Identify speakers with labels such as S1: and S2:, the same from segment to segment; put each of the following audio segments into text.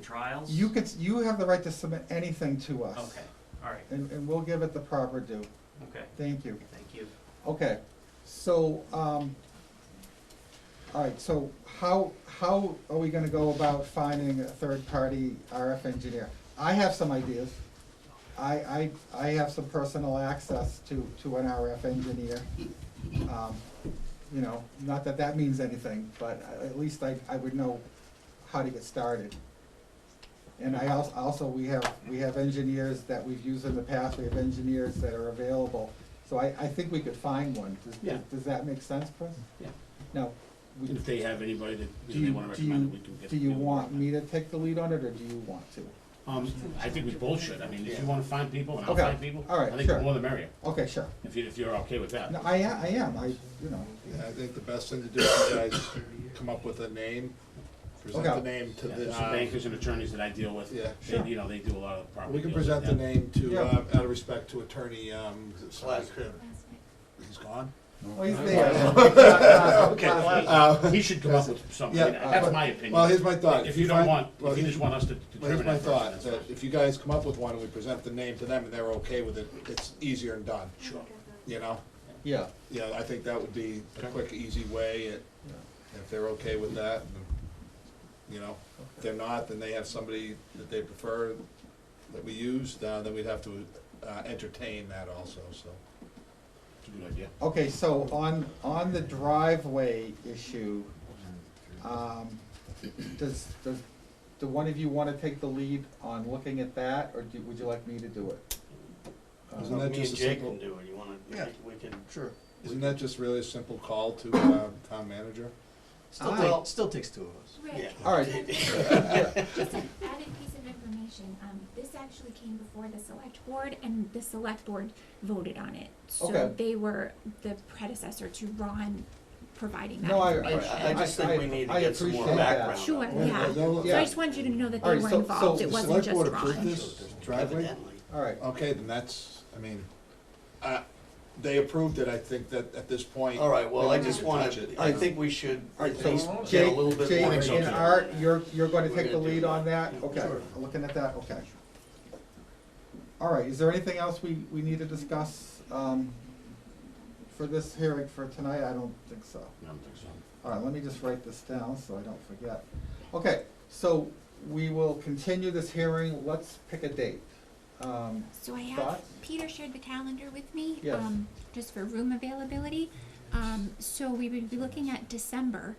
S1: trials?
S2: You could, s- you have the right to submit anything to us.
S1: Okay, all right,
S2: And, and we'll give it the proper due.
S1: okay,
S2: Thank you.
S1: thank you.
S2: Okay, so, um, all right, so how, how are we gonna go about finding a third-party RF engineer? I have some ideas. I, I, I have some personal access to, to an RF engineer. Um, You know, not that that means anything, but I- at least I, I would know how to get started. And I also, also, we have, we have engineers that we've used in the past, we have engineers that are available. So I, I think we could find one. Does-
S3: Yeah.
S2: Does that make sense, Chris?
S3: Yeah.
S2: Now, we-
S3: If they have anybody that
S2: do
S3: you know, they
S2: you,
S3: wanna
S2: do you,
S3: recommend, we can get.
S2: do you
S3: them.
S2: want me to take the lead on it, or do you want to?
S3: Um, I think we both should, I mean, if you wanna find people and I'll
S2: Okay.
S3: find people,
S2: All
S3: I
S2: right,
S3: think the
S2: sure.
S3: more the merrier,
S2: Okay, sure.
S3: if you, if you're okay with that.
S2: No, I am, I am, I, you know,
S4: Yeah, I think the best thing to do is you guys come up with a name, present
S2: Okay.
S4: the name to
S3: Yeah,
S4: the,
S3: There's
S4: uh,
S3: some bankers and attorneys that I deal with,
S4: Yeah.
S3: they, you know, they do a lot of the property.
S4: we can
S3: deals with
S4: present the
S3: them.
S4: name to,
S2: Yeah.
S4: uh, out of respect to attorney, um, slash, he's gone?
S2: well, he's there.
S4: Uh,
S3: He should come up with something,
S4: Yeah,
S3: that's
S4: uh,
S3: my opinion.
S4: Well, here's my thought.
S3: If you
S4: I-
S3: don't want,
S4: well,
S3: if you
S4: here's-
S3: just want us to
S4: Well, here's
S3: determine
S4: my
S3: that person,
S4: thought,
S3: that's
S4: that
S3: fine.
S4: if you guys come up with one and we present the name to them and they're okay with it, it's easier and done,
S3: Sure.
S4: you know?
S2: Yeah,
S4: Yeah, I think that would be a
S3: Okay.
S4: quick, easy way, it-
S2: yeah,
S4: if they're okay with that, and, you know, if they're not, then they have somebody that they prefer that we use, uh, then we'd have to uh, entertain that also, so.
S3: It's a good idea.
S2: okay, so on, on the driveway issue, um, does, does, do one of you wanna take the lead on looking at that, or do, would you like me to do it?
S4: Isn't that
S5: Me
S4: just
S5: and
S4: a
S5: Jake
S4: simple-
S5: can do it, you wanna, we
S4: Yeah.
S5: can- we can,
S6: Sure.
S4: Isn't that just really a simple call to uh, town manager?
S6: Still,
S2: Aye.
S6: take, still takes two of us.
S5: yeah.
S2: All right.
S7: Just an added piece of information, um, this actually came before the select board and the select board voted on it. So
S2: Okay.
S7: they were the predecessor to Ron providing that
S2: No, I-
S7: information.
S5: I, I just think we need
S2: I- I
S5: to get some more
S2: appreciate that.
S5: background.
S7: Sure,
S5: on it.
S7: yeah.
S4: no,
S7: So I just wanted you to know that they
S2: Alright,
S7: were
S2: so- so
S7: involved,
S2: the
S7: it
S4: The
S7: wasn't
S4: select
S7: just
S4: board approved
S7: Ron.
S4: this driveway?
S5: Evidently.
S2: All right,
S4: Okay, then that's, I mean, uh, they approved it, I think that at this point.
S5: All right, well, I
S4: They
S5: just
S4: didn't
S5: wanna,
S4: touch it.
S5: I think we should
S2: all
S5: at
S2: right,
S5: least
S2: so
S5: get a
S2: Jake,
S5: little bit
S2: Jake
S5: more.
S2: and
S5: detail.
S2: Art, you're, you're gonna
S5: We're
S2: take the
S5: gonna do
S2: lead on that,
S5: that. Yeah,
S2: okay,
S5: sure.
S2: looking at that, okay. All right, is there anything else we, we need to discuss, um, for this hearing for tonight? I don't think so.
S3: I don't think so.
S2: All right, let me just write this down so I don't forget. Okay, so we will continue this hearing, let's pick a date. Um,
S7: So I have,
S2: Thoughts?
S7: Peter shared the calendar with me,
S2: Yes.
S7: um, just for room availability. Um, so we would be looking at December,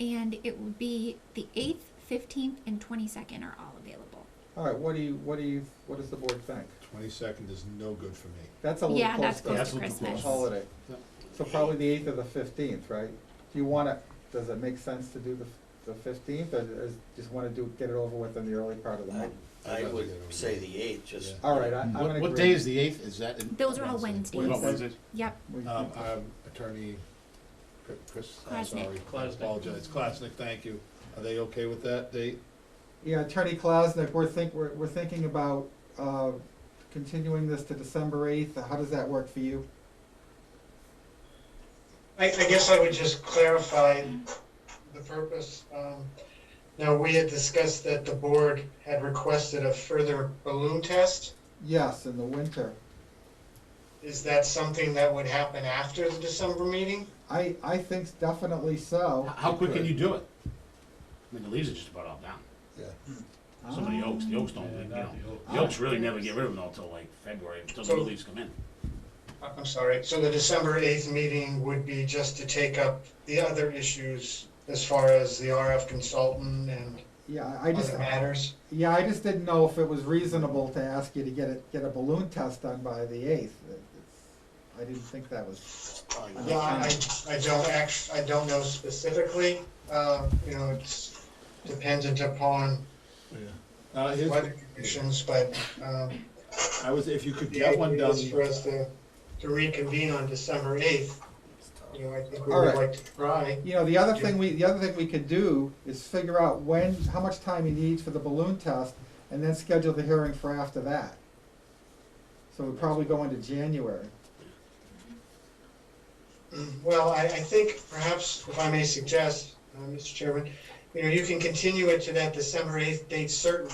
S7: and it would be the eighth, fifteenth, and twenty-second are all available.
S2: All right, what do you, what do you, what does the board think?
S4: Twenty-second is no good for me.
S2: That's a little
S7: Yeah,
S2: close
S7: that's
S2: to
S7: close
S3: That's
S7: to
S3: a little
S2: the
S7: Christmas.
S2: holiday. So probably the eighth or the fifteenth, right? Do you wanna, does it make sense to do the, the fifteenth, or is, just wanna do, get it over with in the early part of the
S5: I-
S2: month?
S5: I would say the eighth, just.
S4: Yeah.
S2: All right, I, I'm gonna
S3: What,
S2: agree.
S3: what day is the eighth, is that? in-
S7: Those are all
S3: What about
S7: Wednesdays.
S3: Wednesdays?
S7: Yep,
S2: We-
S3: uh,
S4: Um, um, attorney, Cr- Chris, I'm
S7: Klasnick.
S4: sorry, I apologize, Klasnick, thank you. Are they okay with that date?
S2: Yeah, Attorney Klasnick, we're think, we're, we're thinking about, uh, continuing this to December eighth, how does that work for you?
S8: I, I guess I would just clarify the purpose. Um, Now, we had discussed that the board had requested a further balloon test.
S2: Yes, in the winter.
S8: Is that something that would happen after the December meeting?
S2: I, I think definitely so.
S3: How- How quick can you do it? I mean, the leaves are just about all down.
S4: Yeah.
S3: Some of the
S2: Ah.
S3: oaks, the oaks don't, you know, the oaks really never get rid of them until like February, until the new leaves come in.
S8: I- I'm sorry, so the December 8th meeting would be just to take up the other issues as far as the RF consultant and
S2: Yeah, I just,
S8: other matters?
S2: yeah, I just didn't know if it was reasonable to ask you to get it, get a balloon test done by the eighth. I didn't think that was,
S8: Yeah, I, I don't act, I don't know specifically. Uh, You know, it's dependent upon
S4: Uh, here's,
S8: weather conditions, but um,
S4: I was, if you could
S8: The
S4: get one
S8: idea
S4: done,
S8: is for us to, to reconvene on December eighth, you know, I think we
S2: All
S8: would
S2: right.
S8: like to try.
S2: you know, the other thing we, the other thing we could do is figure out when, how much time he needs for the balloon test, and then schedule the hearing for after that. So we'd probably go into January.
S8: Mm, Well, I, I think perhaps, if I may suggest, uh, Mr. Chairman, you know, you can continue it to that December eighth date certain,